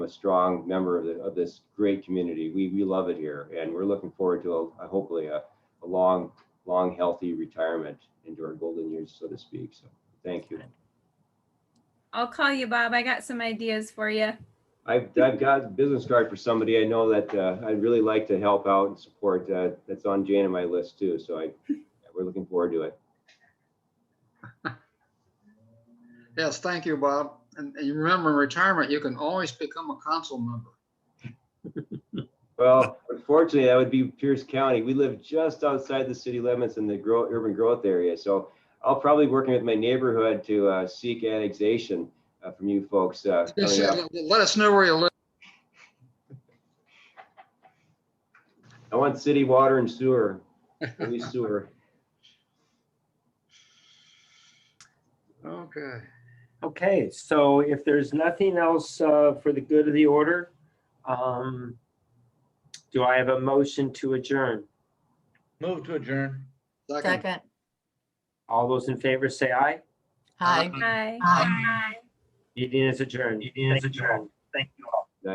a strong member of, the, of this great community. We, we love it here and we're looking forward to a, hopefully a, a long, long, healthy retirement into our golden years, so to speak. So thank you. I'll call you, Bob. I got some ideas for you. I've, I've got a business card for somebody I know that uh, I'd really like to help out and support. Uh, that's on Jane and my list too. So I, we're looking forward to it. Yes, thank you, Bob. And and you remember in retirement, you can always become a council member. Well, unfortunately, that would be Pierce County. We live just outside the city limits in the grow, urban growth area. So I'll probably be working with my neighborhood to uh, seek annexation uh, from you folks. Uh, Just coming up. let- let us know where you live. I want city water and sewer, at least sewer. Okay. Okay, so if there's nothing else uh, for the good of the order, um, do I have a motion to adjourn? Move to adjourn. Second. Second. All those in favor say aye. Hi. Hi. Hi. Meeting is adjourned. Meeting is adjourned.